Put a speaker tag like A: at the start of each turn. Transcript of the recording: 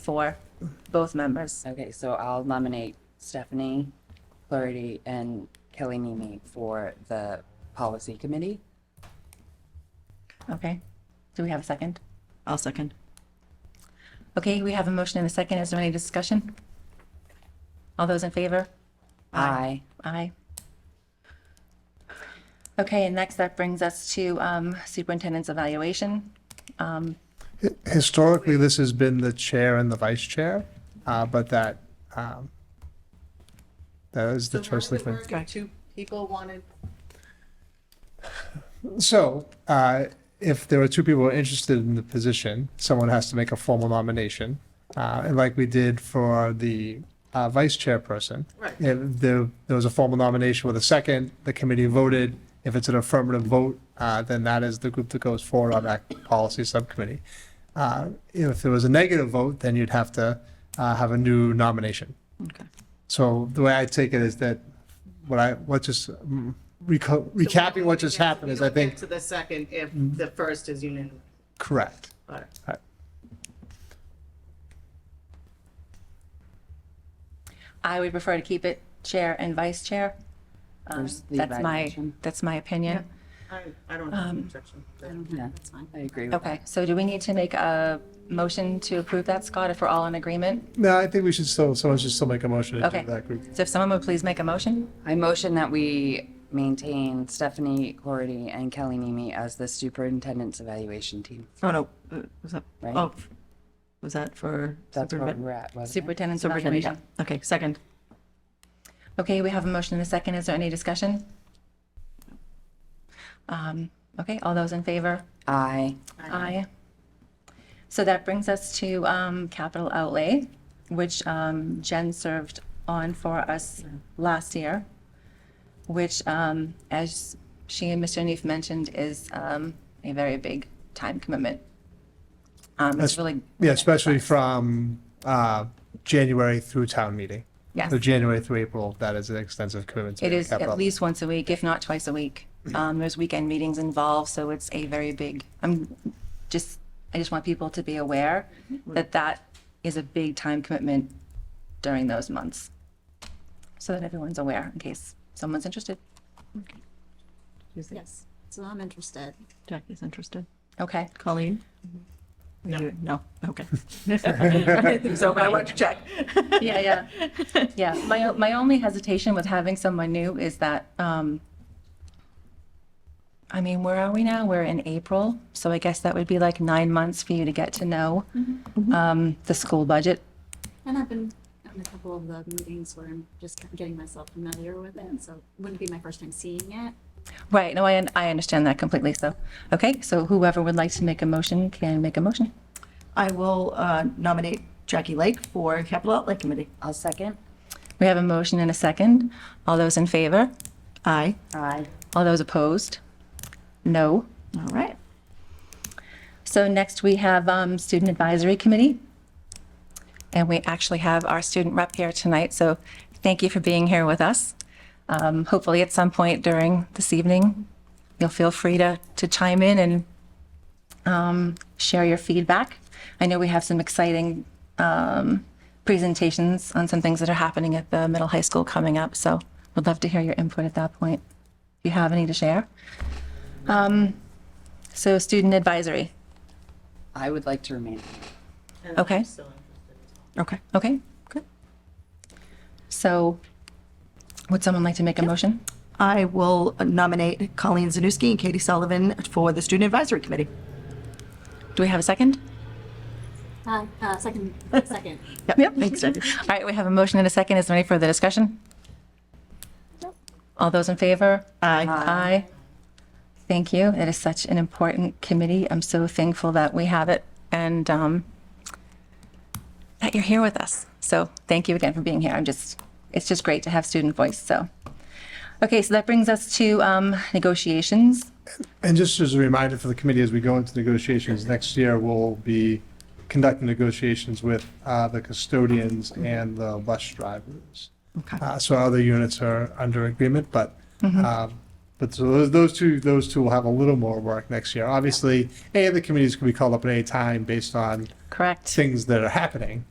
A: for both members.
B: Okay, so I'll nominate Stephanie Clarity and Kelly Nimi for the policy committee.
A: Okay. Do we have a second?
C: I'll second.
A: Okay, we have a motion and a second. Is there any discussion? All those in favor?
B: Aye.
A: Aye. Okay, and next that brings us to um, superintendent's evaluation.
D: Historically, this has been the chair and the vice chair, uh, but that, um, that is the choice. that went-
E: Two people wanted
D: So, uh, if there are two people who are interested in the position, someone has to make a formal nomination. Uh, and like we did for the, uh, vice chairperson.
E: Right.
D: If there, there was a formal nomination with a second, the committee voted. If it's an affirmative vote, uh, then that is the group that goes forward on that policy subcommittee. Uh, if there was a negative vote, then you'd have to, uh, have a new nomination.
C: Okay.
D: So the way I take it is that what I, what just, mm, reco- recapping what just happened is I think Mm-hmm.
E: To the second, if the first is unanimous.
D: Correct.
E: All right.
A: I would prefer to keep it chair and vice chair. Um,
B: There's the
A: That's my,
B: evaluation.
A: that's my opinion.
E: I, I don't have an objection. to that.
B: Yeah, Mm-hmm, that's fine. I agree with that.
A: Okay, so do we need to make a motion to approve that, Scott, if we're all in agreement?
D: No, I think we should still, someone should still make a motion to
A: Okay.
D: do that group.
A: So if someone would please make a motion?
B: I motion that we maintain Stephanie Clarity and Kelly Nimi as the superintendent's evaluation team.
C: Oh, no, uh, was that,
B: Right.
C: oh, was that for?
B: That's where
C: superintendent?
B: we're at, wasn't it?
A: Superintendent's
C: Superintendent, yeah.
A: evaluation.
C: Okay, second.
A: Okay, we have a motion and a second. Is there any discussion? Um, Okay, all those in favor?
B: Aye.
A: Aye. So that brings us to um, capital outlay, which um, Jen served on for us last year, which, um, as she and Mr. Neef mentioned, is um, a very big time commitment. Um, It's
D: That's-
A: really,
D: Yeah, especially from uh, January through town meeting.
A: Yes.
D: So January through April, that is an extensive commitment. to
A: it
D: the
A: is
D: capital.
A: at least once a week, if not twice a week. Um, There's weekend meetings involved, so it's a very big, I'm just, I just want people to be aware that that is a big time commitment during those months. So that everyone's aware in case someone's interested.
F: Yes, so I'm interested.
C: Jackie's interested.
A: Okay.
C: Colleen? No. No, okay. I didn't think So but I wanted to check.
A: Yeah, yeah. Yeah, my, o- my only hesitation with having someone new is that, um, I mean, where are we now? We're in April, so I guess that would be like nine months for you to get to know, um, the school budget.
F: And I've been in a couple of the meetings where I'm just kind of getting myself familiar with it, so wouldn't be my first time seeing it.
A: Right, no, I, un- I understand that completely, so, okay, so whoever would like to make a motion can make a motion.
C: I will uh, nominate Jackie Lake for Capital Outlay Committee.
B: I'll second.
A: We have a motion and a second. All those in favor?
C: Aye.
B: Aye.
A: All those opposed? No.
C: All right.
A: So next we have um, Student Advisory Committee. And we actually have our student rep here tonight, so thank you for being here with us. Um, Hopefully at some point during this evening, you'll feel free to, to chime in and um, share your feedback. I know we have some exciting um, presentations on some things that are happening at the middle high school coming up, so would love to hear your input at that point, if you have any to share. Um, So Student Advisory.
B: I would like to remain.
E: And I'm
A: Okay.
E: still interested as well.
C: Okay.
A: Okay, good. So would someone like to make a motion?
C: I will nominate Colleen Zanuski and Katie Sullivan for the Student Advisory Committee.
A: Do we have a second?
F: Uh, uh, second, second.
C: Yep. Thanks, Jackie.
A: All right, we have a motion and a second. Is there any further discussion? All those in favor?
C: Aye.
A: Aye. Thank you. It is such an important committee. I'm so thankful that we have it and um, that you're here with us. So thank you again for being here. I'm just, it's just great to have student voice, so. Okay, so that brings us to um, negotiations.
D: And just as a reminder for the committee, as we go into negotiations next year, we'll be conducting negotiations with uh, the custodians and the bus drivers.
C: Okay.
D: Uh, So other units are under agreement, but, um, but so those- those two, those two will have a little more work next year. Obviously, any of the committees can be called up at any time based on
A: Correct.
D: things that are happening.